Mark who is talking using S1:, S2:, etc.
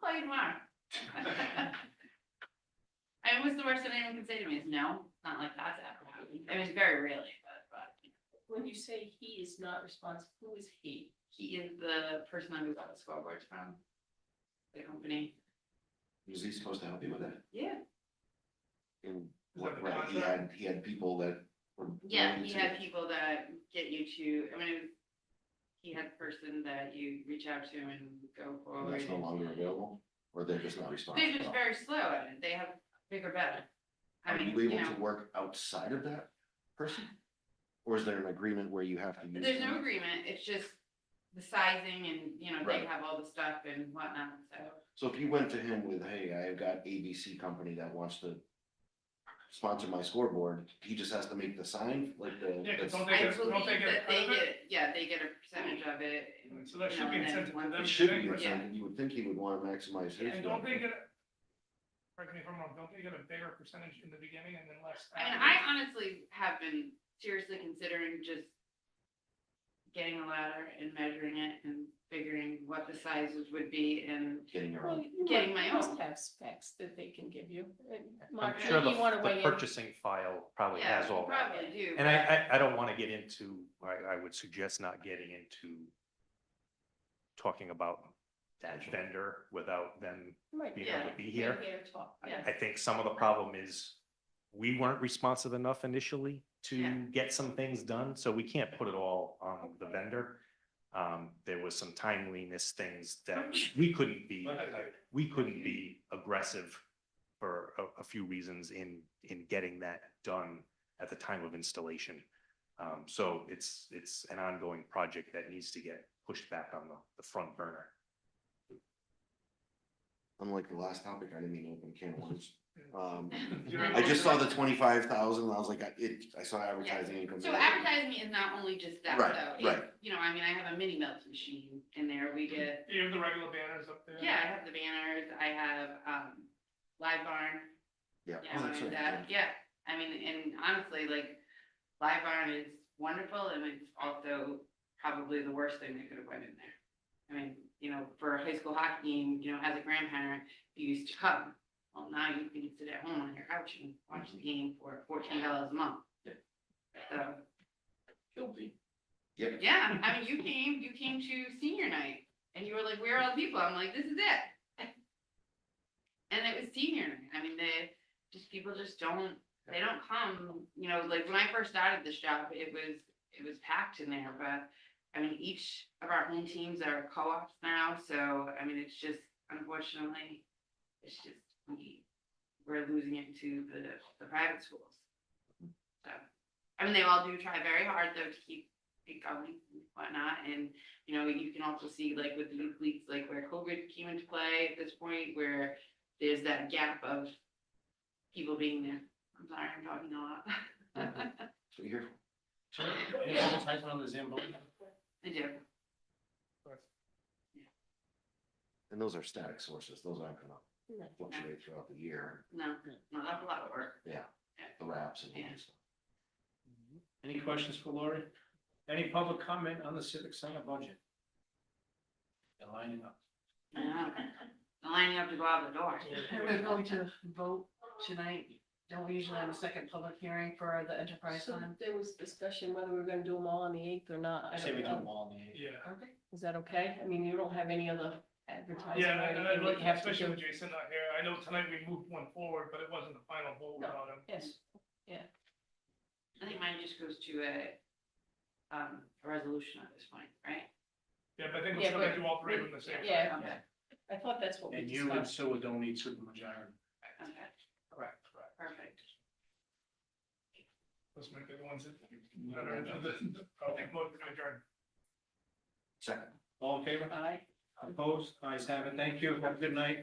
S1: call you tomorrow. I mean, what's the worst that anyone can say to me is no, it's not like that's ever happened. I mean, it's very rarely, but, but
S2: When you say he is not responsible, who is he?
S1: he is the person I moved out of scoreboards from. The company.
S3: Was he supposed to help you with that?
S1: Yeah.
S3: In
S4: Is
S3: what,
S4: that the
S3: right, he had,
S4: contract?
S3: he had people that were.
S1: Yeah,
S3: willing
S1: he
S3: to-
S1: had people that get you to, I mean, it was- he had a person that you reach out to and go
S3: and
S1: forward.
S3: That's no longer available, or they're just not responsible.
S1: They're just very slow at it. They have bigger bet. I mean,
S3: Are you
S1: you
S3: able
S1: know,
S3: to work outside of that person? Or is there an agreement where you have to use?
S1: there's no
S3: them?
S1: agreement. It's just the sizing and, you know, they
S3: Right.
S1: have all the stuff and whatnot, so.
S3: So if you went to him with, hey, I've got ABC company that wants to sponsor my scoreboard, he just has to make the sign, like the.
S4: Yeah, 'cause don't
S3: that's-
S4: they
S1: I
S4: get, don't they
S1: believe
S4: get
S1: that
S4: a
S1: they
S4: cut of it?
S1: get, yeah, they get a percentage of it. and,
S4: So that
S1: you
S4: should
S1: know,
S4: be
S1: and then
S4: incentive to
S1: one-
S4: them.
S3: It should be,
S4: Yeah.
S3: something you would think he would wanna maximize his.
S4: And don't
S3: benefit.
S4: they get, a- correct me if I'm wrong, don't they get a bigger percentage in the beginning and then less?
S1: I mean,
S4: after?
S1: I honestly have been seriously considering just getting a ladder and measuring it and figuring what the sizes would be and
S3: Getting your
S2: Well,
S3: own.
S2: you
S1: Getting
S2: might-
S1: my
S2: must
S1: own.
S2: Have specs that they can give you. And
S5: I'm
S2: Mark,
S5: sure
S2: maybe
S5: the,
S2: you want to
S5: the
S2: weigh in.
S5: purchasing file probably
S1: yeah,
S5: has
S1: you
S5: all that.
S1: probably do.
S5: And
S1: but-
S5: I, I, I don't want to get into, I, I would suggest not getting into talking about that vendor without them
S2: Might
S5: being
S2: be-
S5: able
S1: Yeah.
S5: to be
S2: might
S5: here.
S2: be able to talk,
S5: I,
S2: yeah.
S5: I think some of the problem is we weren't responsive enough initially to
S1: Yeah.
S5: get some things done, so we can't put it all on the vendor. Um, there was some timeliness things that we couldn't be, we couldn't be aggressive for a, a few reasons in, in getting that done at the time of installation. Um, so it's, it's an ongoing project that needs to get pushed back on the, the front burner.
S3: unlike the last topic, I didn't mean to open a can of worms. Um,
S4: You know,
S3: I just saw the twenty-five thousand, I was like, I, it, I saw advertising income.
S1: So advertising is not only just that
S3: Right,
S1: though. It- You know, I mean, I have a mini melt machine in there. We get,
S4: You have the regular banners up there.
S1: yeah, I have the banners, I have, um, Live Barn.
S3: Yeah.
S1: You
S3: Oh,
S1: know,
S3: that's
S1: and
S3: right,
S1: that, yeah, I mean, and honestly, like, Live Barn is wonderful and it's also probably the worst thing that could have went in there. I mean, you know, for a high school hockey game, you know, as a grandparent, you used to come. Well, now you can sit at home on your couch and watch the game for fourteen dollars a month.
S3: Yeah.
S1: So.
S2: Guilty.
S3: Yep,
S1: Yeah, I mean, you came, you came to senior night and you were like, where are all the people? I'm like, this is it. And it was senior night. I mean, they, just people just don't, they don't come, you know, like when I first started this job, it was, it was packed in there, but I mean, each of our home teams are co-ops now, so I mean, it's just unfortunately, it's just, we, we're losing it to the, the private schools. So, I mean, they all do try very hard though to keep it going and whatnot, and, you know, you can also see like with the youth leagues, like where COVID came into play at this point, where there's that gap of people being there. I'm sorry, I'm talking a lot.
S3: so here,
S1: I do,
S3: and those are static sources, those aren't gonna
S2: No.
S3: fluctuate throughout the year,
S1: no, no, that's a lot of work.
S3: the wraps and all that stuff.
S6: Any questions for Lori? Any public comment on the civic center budget? They're lining up.
S1: I know. Lining up to go out the door.
S2: And We're going to vote tonight. Don't we usually have a second public hearing for the enterprise fund? There was discussion whether we were going to do them all on the eighth or not.
S6: I
S2: I
S6: say we
S2: don't
S6: do them
S2: know.
S6: all in the eight.
S4: Yeah,
S2: Is that okay? I mean, you don't have any other advertising
S4: yeah,
S2: or
S4: and I
S2: anything that
S4: like,
S2: you have to
S4: especially
S2: do?
S4: with Jason not here, I know tonight we moved one forward, but it wasn't the final vote
S2: No.
S4: without him.
S2: Yes.
S1: I think mine just goes to a, um, a resolution at this point, right?
S4: Yeah, but I think we're
S2: Yeah,
S4: still gonna
S2: but-
S4: do all three of them the same.
S2: Yeah,
S1: Okay,
S2: I thought that's what we
S6: And you and
S2: discussed.
S6: Sue don't need supermajority.
S1: okay,
S6: Correct, correct.
S1: perfect.
S4: Those might be the ones that. that are- I'll make motion to adjourn.
S3: Second.
S6: All in favor?
S2: Aye.
S6: Opposed? Ayes have it. Thank you. Have a good night.